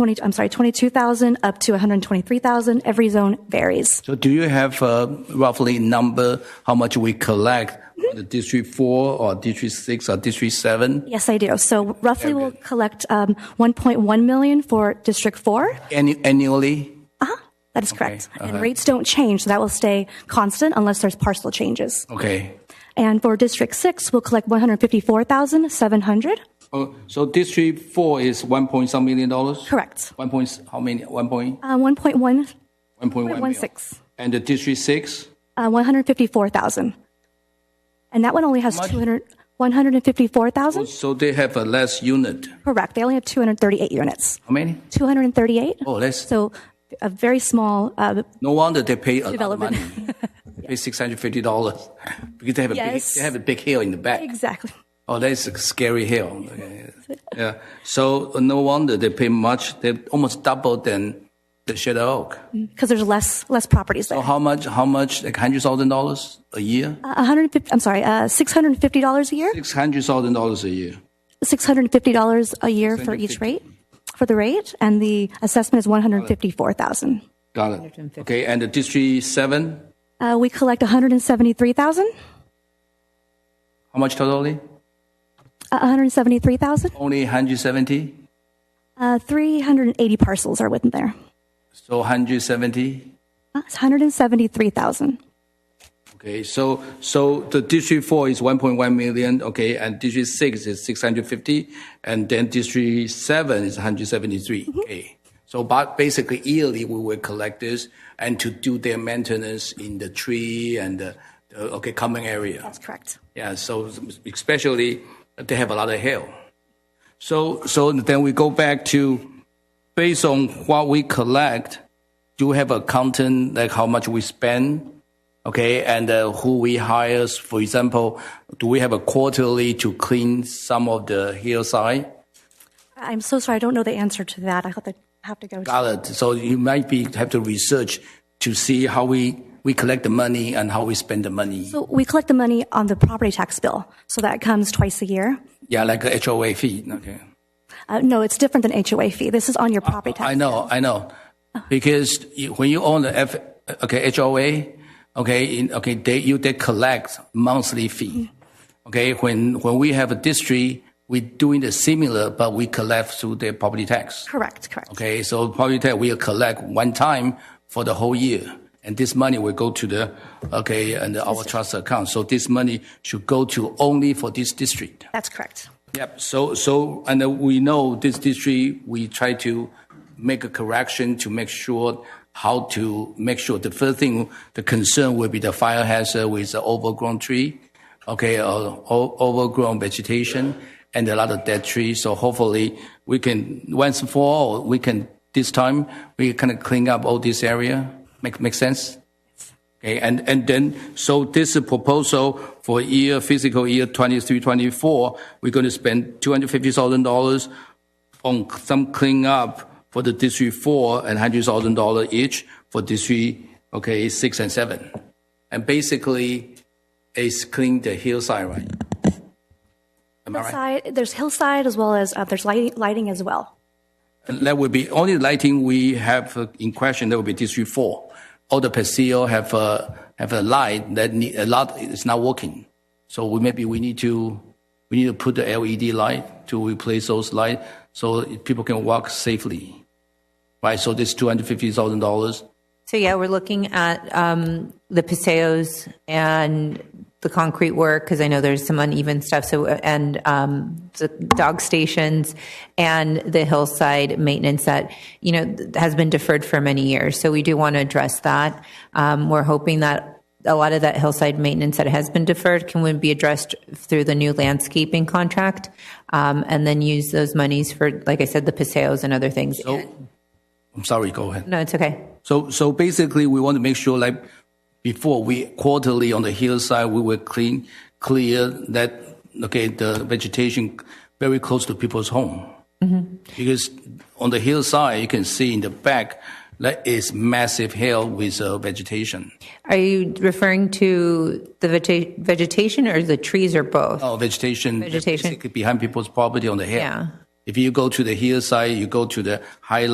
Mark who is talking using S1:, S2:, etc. S1: 20, I'm sorry, 22,000 up to 123,000. Every zone varies.
S2: So do you have uh, roughly number how much we collect for the District 4 or District 6 or District 7?
S1: Yes, I do. So roughly we'll collect um, 1.1 million for District 4.
S2: Annu- annually?
S1: That is correct. And rates don't change, so that will stay constant unless there's parcel changes.
S2: Okay.
S1: And for District 6, we'll collect 154,700.
S2: Oh, so District 4 is 1 point some million dollars?
S1: Correct.
S2: 1 point, s- how many? 1 point?
S1: Uh, 1.1,
S2: 1.1 million.
S1: 1.16.
S2: And the District 6?
S1: uh, 154,000. And that one only has 200, 154,000?
S2: So they have a less unit.
S1: Correct. They only have 238 units.
S2: How many?
S1: 238?
S2: Oh, less.
S1: So a very small, uh,
S2: No wonder they pay a lot of
S1: Development.
S2: money. They Pay $650 because they have a big,
S1: Yes.
S2: they have a big hill in the back.
S1: exactly.
S2: Oh, that's a scary hill. Okay. Yeah. So uh, no wonder they pay much. They almost double than the Shadow Oak.
S1: Because there's less, less properties there.
S2: So how much? How much? Like hundred thousand dollars a year?
S1: Uh, 150, I'm sorry, uh, $650 a year?
S2: Six hundred thousand dollars a year.
S1: $650 a year for each rate, for the rate, and the assessment is 154,000.
S2: Got it. Okay. And the District Seven?
S1: Uh, we collect 173,000,
S2: How much totally?
S1: uh, 173,000,
S2: Only hundred seventy.
S1: uh, 380 parcels are within there.
S2: So hundred seventy.
S1: Uh, It's 173,000.
S2: Okay. So so the District Four is one point one million. Okay. And District Six is six hundred fifty. And then District Seven is one hundred seventy three. Okay. So, but basically yearly we will collect this and to do their maintenance in the tree and the, the okay common area.
S1: That's correct.
S2: Yeah, so especially they have a lot of hail. So so then we go back to based on what we collect, do we have a content like how much we spend? Okay, and uh, who we hire? For example, do we have a quarterly to clean some of the hillside?
S1: I- I'm so sorry, I don't know the answer to that. I have to, have to go. to-
S2: Got it. So you might be have to research to see how we we collect the money and how we spend the money.
S1: So we collect the money on the property tax bill, so that comes twice a year.
S2: yeah, like a HOA fee. Okay.
S1: Uh, no, it's different than HOA fee. This is on your property tax.
S2: I know, I know. Because you, when you own the F, okay, HOA, okay, in, okay, they, you, they collect monthly fee. Okay, when, when we have a district, we doing the similar, but we collect through the property tax.
S1: Correct, correct.
S2: Okay, so property tax we collect one time for the whole year. And this money will go to the, okay, and our trust account. So this money should go to only for this district.
S1: That's correct.
S2: Yep. So, so, and uh, we know this district, we try to make a correction to make sure how to make sure the first thing, the concern will be the fire hazard with the overgrown tree, okay, or o- overgrown vegetation and a lot of dead trees. So hopefully we can, once and for all, we can, this time, we kind of clean up all this area. Make, make sense? Okay, and, and then, so this proposal for year, fiscal year 23, 24, we're going to spend $250,000 on some cleanup for the District 4 and $100,000 each for District, okay, 6 and 7. And basically, it's clean the hillside, right? Am I right?
S1: Hillside, there's hillside as well as, uh, there's lighting, lighting as well.
S2: That would be, only lighting we have uh, in question, that would be District 4. All the patio have a, have a light that need, a lot is not working. So we, maybe we need to, we need to put the LED light to replace those light so people can walk safely. Right, so this $250,000,
S3: So yeah, we're looking at um, the paseos and the concrete work because I know there's some uneven stuff. So and um, the dog stations and the hillside maintenance that you know th- has been deferred for many years. So we do want to address that. Um, we're hoping that a lot of that hillside maintenance that has been deferred can would be addressed through the new landscaping contract, um, and then use those monies for, like I said, the paseos and other things.
S2: I'm sorry, go ahead.
S3: no, it's okay.
S2: So, so basically, we want to make sure, like before, we quarterly on the hillside, we will clean, clear that okay the vegetation very close to people's home,
S3: Mm-hmm.
S2: because on the hillside you can see in the back that is massive hill with uh, vegetation.
S3: Are you referring to the vegeta- vegetation or the trees or both?
S2: Oh, vegetation,
S3: Vegetation.
S2: basically behind people's property on the hill.
S3: Yeah.
S2: If you go to the hillside, you go to the high